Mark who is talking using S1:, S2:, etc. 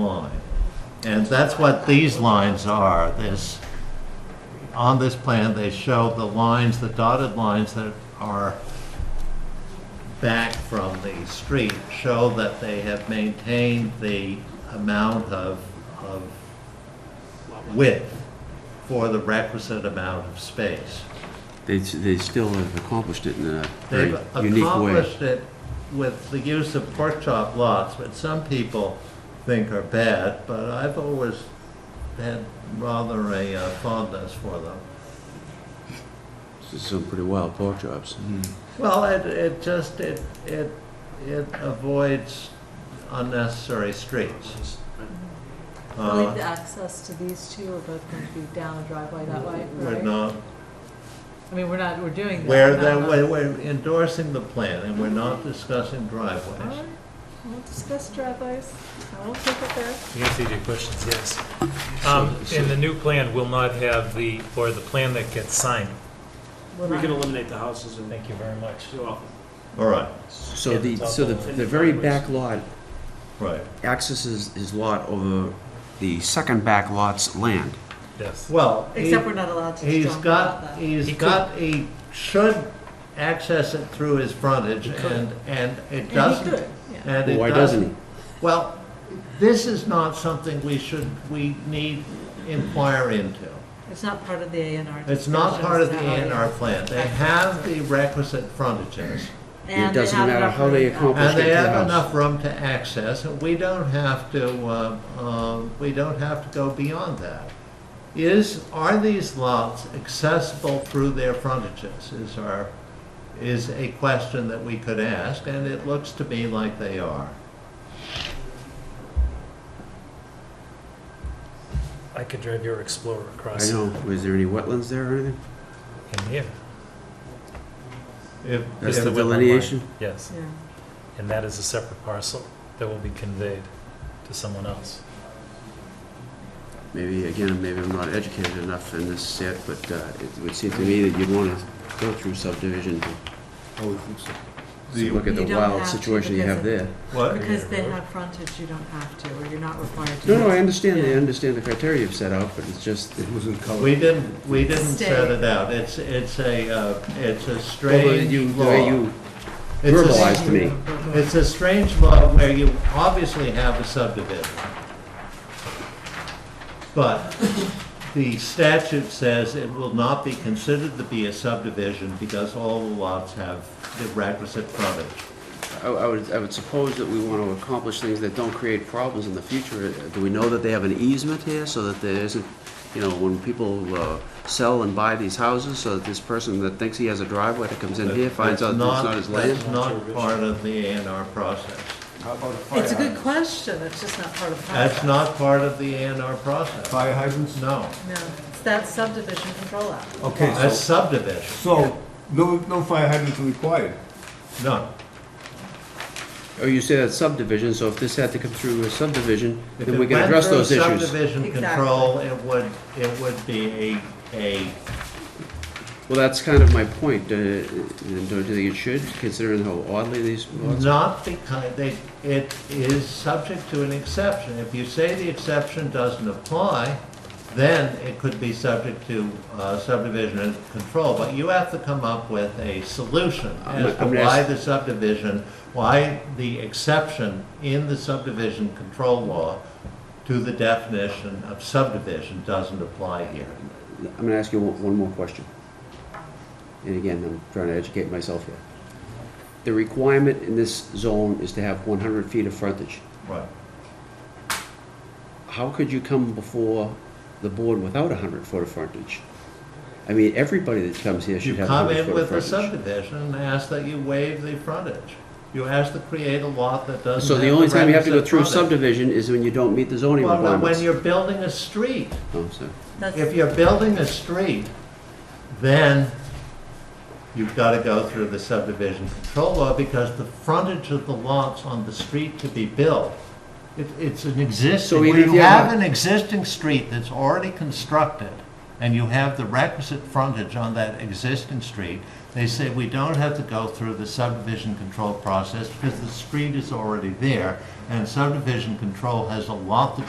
S1: line. And that's what these lines are, this, on this plan, they show the lines, the dotted lines that are back from the street, show that they have maintained the amount of, of width for the requisite amount of space.
S2: They, s- they still have accomplished it in a very
S1: They've
S2: unique way.
S1: accomplished it with the use of pork chop lots, which some people think are bad, but I've always had rather a uh, fondness for them.
S2: S- Some pretty wild pork chops.
S1: Well, it, it just, it, it, it avoids unnecessary streets.
S3: I like the
S1: Uh,
S3: access to these two are both going to be down the driveway that way,
S1: We're
S3: right?
S1: not,
S3: I mean, we're not, we're doing that.
S1: where
S3: not-
S1: the,
S3: not-
S1: we're we're endorsing the plan and we're not discussing
S3: All right,
S1: driveways.
S3: we'll discuss driveways. I will take it there.
S4: To answer your questions, yes. Um, And the new plan will not have the, or the plan that gets signed.
S3: We're
S5: We
S3: not-
S5: can eliminate the houses and
S4: Thank you very much.
S5: do off.
S1: All right,
S2: So the, so the, the very back lot
S1: right.
S2: accesses his lot over the second back lot's land.
S4: Yes.
S1: Well.
S3: Except we're not allowed to
S1: He's
S3: jump about
S1: got,
S3: that.
S1: he's
S4: He could-
S1: got, he should access it through his frontage and, and it
S3: And he
S1: doesn't.
S3: could, yeah.
S1: and it
S2: Why doesn't he?
S1: Well, this is not something we should, we need inquire into.
S3: It's not part of the A and R.
S1: It's not part of the A
S3: discussions,
S1: and
S3: how
S1: R
S3: it is.
S1: plan. They have the requisite frontages.
S3: And
S2: It
S3: they
S2: doesn't
S3: have
S2: matter
S3: enough
S2: how they
S3: room out.
S2: accomplish-
S1: And
S2: Let's get
S1: they
S2: to the
S1: have
S2: house.
S1: enough room to access, and we don't have to, uh, um, we don't have to go beyond that. Is, are these lots accessible through their frontages is our, is a question that we could ask, and it looks to me like they are.
S4: I could drive your Explorer
S2: I
S4: across.
S2: know, was there any wetlands there or anything?
S4: In here,
S1: If,
S2: That's
S1: if-
S2: the
S4: wetland line.
S2: delineation?
S4: yes.
S3: Yeah.
S4: And that is a separate parcel that will be conveyed to someone else.
S2: Maybe, again, maybe I'm not educated enough in this yet, but uh, it would seem to me that you'd want to go through subdivision to
S1: The-
S2: to look at the
S3: You don't
S2: wild
S3: have to
S2: situation you
S3: because
S2: have
S3: of-
S2: there.
S1: what,
S3: Because they have frontage, you don't have to, or you're not required to.
S2: No, no, I understand, I
S3: Yeah.
S2: understand the criteria you've set out, but it's just, it wasn't colored.
S1: we didn't, we didn't
S3: Stay.
S1: set it out. It's, it's a, uh, it's a strange
S2: The
S1: law.
S2: way you
S1: It's a-
S2: verbalized to me.
S3: uh,
S1: It's a strange law where you obviously have a subdivision. But the statute says it will not be considered to be a subdivision because all the lots have the requisite frontage.
S2: I, I would, I would suppose that we want to accomplish things that don't create problems in the future. Uh, Do we know that they have an easement here so that there isn't, you know, when people uh, sell and buy these houses, so that this person that thinks he has a driveway that comes in here finds out that it's not his land?
S1: That's not part of the A and R process.
S6: How about a fire
S3: It's a good
S6: hydrant?
S3: question, it's just not part of. the
S1: That's
S3: process.
S1: not part of the A and R process.
S6: Fire hydrants?
S1: No,
S3: No, it's that subdivision control act.
S6: Okay,
S1: that's
S6: so,
S1: subdivision,
S6: so no, no fire hydrants are required.
S1: no.
S2: Or you say that subdivision, so if this had to come through a subdivision,
S1: If
S2: then
S1: it
S2: we can
S1: went
S2: address
S1: through
S2: those issues.
S1: Subdivision
S3: Exactly.
S1: control, it would, it would be a, a
S2: Well, that's kind of my point. Uh, and Don't you think it should, considering how oddly these lots are?
S1: Not because, they, it is subject to an exception. If you say the exception doesn't apply, then it could be subject to uh, subdivision and control. But you have to come up with a solution
S2: I'm-
S1: as to
S2: I'm gonna
S1: why
S2: ask-
S1: the subdivision, why the exception in the subdivision control law to the definition of subdivision doesn't apply here.
S2: I'm gonna ask you one one more question. And again, I'm trying to educate myself here. The requirement in this zone is to have one hundred feet of frontage.
S1: Right.
S2: How could you come before the board without hundred foot of frontage? I mean, everybody that comes here
S1: You
S2: should have
S1: come
S2: hundred
S1: in
S2: foot of
S1: with a
S2: frontage.
S1: subdivision and ask that you waive the frontage. You ask to create a lot that doesn't
S2: So the
S1: have
S2: only time you have to go
S1: requisite
S2: through
S1: frontage.
S2: subdivision is when you don't meet the zoning
S1: Well, no,
S2: requirements.
S1: when you're building a street,
S2: Oh, sorry.
S3: That's-
S1: if you're building a street, then you've got to go through the subdivision control law because the frontage of the lots on the street to be built, it, it's an existing,
S2: So
S1: when
S2: even if
S1: you
S2: you have
S1: have an existing street that's already constructed, and you have the requisite frontage on that existing street, they say we don't have to go through the subdivision control process because the street is already there, and subdivision control has a lot to